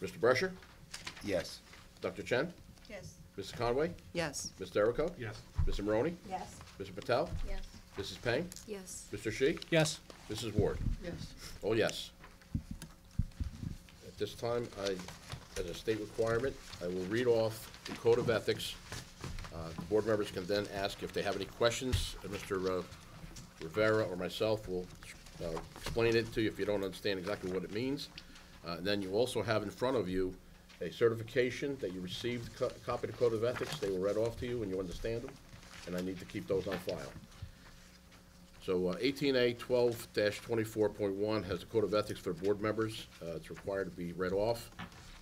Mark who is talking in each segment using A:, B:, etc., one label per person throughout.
A: Mr. Brescher?
B: Yes.
A: Dr. Chen?
C: Yes.
A: Mrs. Conway?
C: Yes.
A: Ms. Derico?
D: Yes.
A: Mrs. Maroney?
C: Yes.
A: Mr. Patel?
C: Yes.
A: Mrs. Peng?
E: Yes.
A: Mr. Shi?
D: Yes.
A: Mrs. Ward?
C: Yes.
A: Oh, yes. At this time, I, as a state requirement, I will read off the Code of Ethics. Uh, the Board members can then ask if they have any questions, and Mr. uh, Rivera or myself will uh, explain it to you if you don't understand exactly what it means. Uh, Then you also have in front of you a certification that you received, co- copy of the Code of Ethics. They were read off to you, and you understand them, and I need to keep those on file. So uh, eighteen A twelve twenty-four point one has the code of ethics for board members. Uh, It's required to be read off.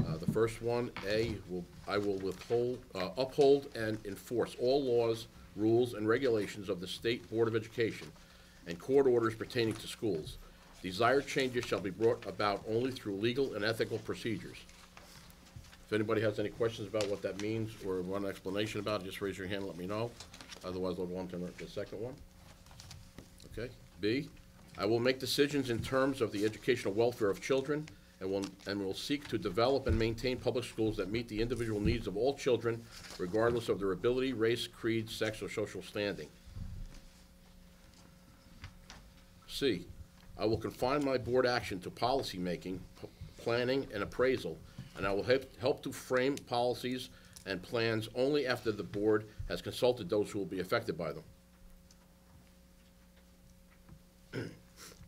A: Uh, The first one, A, will, I will withhold, uh, uphold and enforce all laws, rules, and regulations of the State Board of Education and court orders pertaining to schools. Desired changes shall be brought about only through legal and ethical procedures. If anybody has any questions about what that means or want an explanation about it, just raise your hand and let me know. Otherwise, I'll go on to the second one. Okay. B, I will make decisions in terms of the educational welfare of children and will, and will seek to develop and maintain public schools that meet the individual needs of all children regardless of their ability, race, creed, sex, or social standing. C, I will confine my board action to policymaking, p- planning, and appraisal, and I will help, help to frame policies and plans only after the board has consulted those who will be affected by them.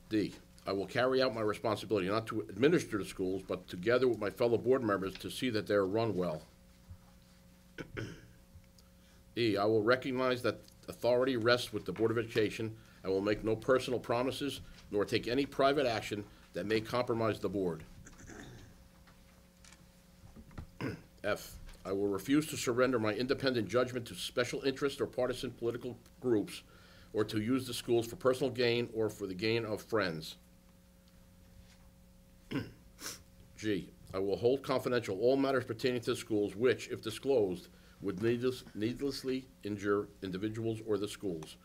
A: D, I will carry out my responsibility not to administer the schools, but together with my fellow board members to see that they are run well. E, I will recognize that authority rests with the Board of Education. I will make no personal promises nor take any private action that may compromise the board. F, I will refuse to surrender my independent judgment to special interest or partisan political groups or to use the schools for personal gain or for the gain of friends. G, I will hold confidential all matters pertaining to the schools which, if disclosed, would needless- needlessly injure individuals or the schools.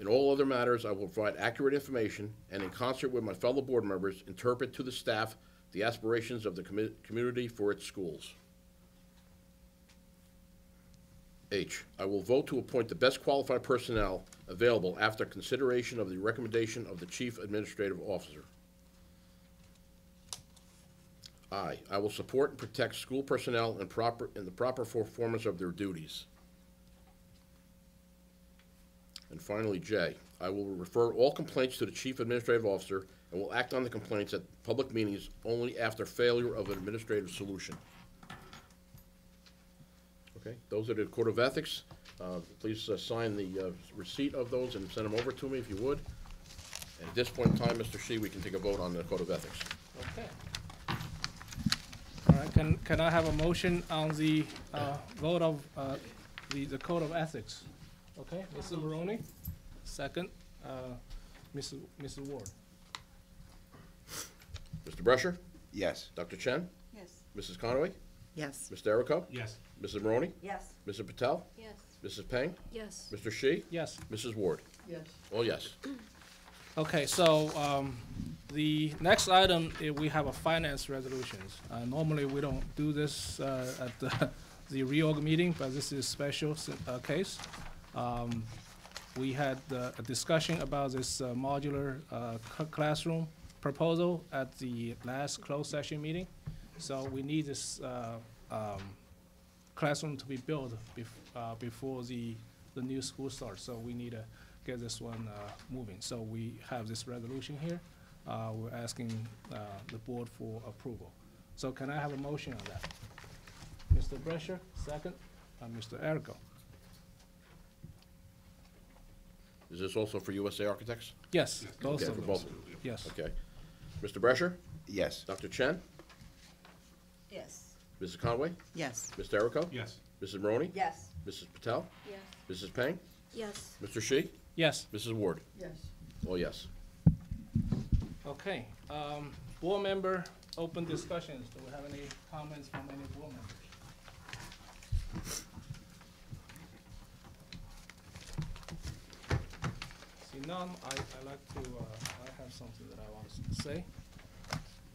A: In all other matters, I will provide accurate information and in concert with my fellow board members, interpret to the staff the aspirations of the commu- community for its schools. H, I will vote to appoint the best qualified personnel available after consideration of the recommendation of the Chief Administrative Officer. I, I will support and protect school personnel in proper, in the proper performance of their duties. And finally, J, I will refer all complaints to the Chief Administrative Officer and will act on the complaints at public meetings only after failure of an administrative solution. Okay, those are the Code of Ethics. Uh, Please uh, sign the uh, receipt of those and send them over to me if you would. And At this point in time, Mr. Shi, we can take a vote on the Code of Ethics.
D: Okay. All right, can, can I have a motion on the uh, vote of, uh, the, the code of ethics? Okay, Mrs. Maroney, second, uh, Mrs. Mrs. Ward.
A: Mr. Brescher?
B: Yes.
A: Dr. Chen?
C: Yes.
A: Mrs. Conway?
C: Yes.
A: Mr. Derico?
D: Yes.
A: Mrs. Maroney?
C: Yes.
A: Mr. Patel?
E: Yes.
A: Mrs. Peng?
E: Yes.
A: Mr. Shi?
D: Yes,
A: Mrs. Ward?
C: Yes.
A: Oh, yes.
D: okay, so, um, the next item, eh, we have a finance resolutions. Uh, normally, we don't do this, uh, at the, the reorg meeting, but this is a special, s- uh, case. Um, we had uh, a discussion about this uh, modular uh, c- classroom proposal at the last closed session meeting. So we need this uh, um, classroom to be built bef- uh, before the, the new school starts. So we need to get this one uh, moving. So we have this resolution here. Uh, We're asking uh, the board for approval. So can I have a motion on that? Mr. Brescher, second, Uh, and Mr. Erico.
A: Is this also for USA Architects?
D: Yes, both
A: Okay,
D: of
A: for
D: those.
A: both of them.
D: Yes.
A: Okay. Mr. Brescher?
B: Yes.
A: Dr. Chen?
C: Yes.
A: Mrs. Conway?
C: Yes.
A: Mr. Derico?
D: Yes.
A: Mrs. Maroney?
C: Yes.
A: Mrs. Patel?
E: Yes.
A: Mrs. Peng?
E: Yes.
A: Mr. Shi?
D: Yes,
A: Mrs. Ward?
C: Yes.
A: Oh, yes.
D: okay. Um, board member, open discussions. Do we have any comments from any board members? See none, I, I like to, uh, I have something that I want to say.